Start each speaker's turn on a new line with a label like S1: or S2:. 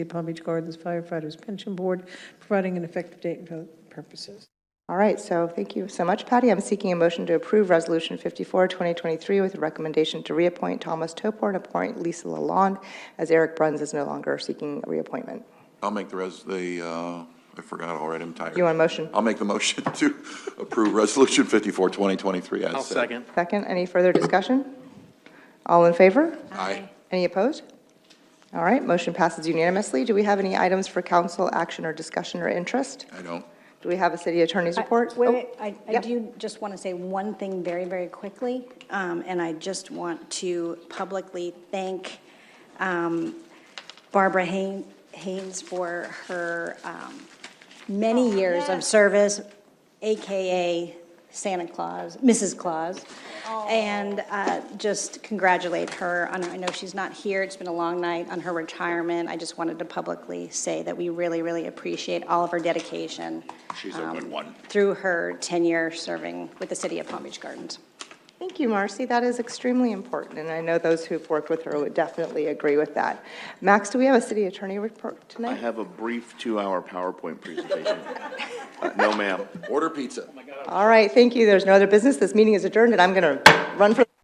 S1: the Palm Beach Gardens Firefighters Pension Board, providing an effective date and vote purposes.
S2: All right, so thank you so much, Patty. I'm seeking a motion to approve Resolution 54, 2023, with a recommendation to reappoint Thomas Topor and appoint Lisa Lalonde, as Eric Bruns is no longer seeking reappointment.
S3: I'll make the res, the, uh, I forgot already, I'm tired.
S2: Do you want a motion?
S3: I'll make the motion to approve Resolution 54, 2023, as
S4: I'll
S3: said.
S4: second.
S2: Second, any further discussion? All in favor?
S3: Aye.
S2: Any opposed? All right, motion passes unanimously. Do we have any items for council action or discussion or interest?
S3: I don't.
S2: Do we have a city attorney's
S5: I-
S2: report?
S5: Wait,
S2: Oh,
S5: wait, I, I
S2: yep.
S5: do just want to say one thing very, very quickly, um, and I just want to publicly thank um, Barbara Hay- Haynes for her um, many years of service, AKA Santa Claus, Mrs. Claus. And uh, just congratulate her on, I know she's not here, it's been a long night, on her retirement. I just wanted to publicly say that we really, really appreciate all of her dedication. um,
S3: She's a good one.
S5: Through her tenure serving with the city of Palm Beach Gardens.
S2: Thank you, Marcy. That is extremely important, and I know those who've worked with her would definitely agree with that. Max, do we have a city attorney report
S4: I
S2: tonight?
S4: have a brief two-hour PowerPoint presentation. Uh, No, ma'am.
S3: Order pizza.
S2: All right, thank you. There's no other business. This meeting is adjourned, and I'm going to run for...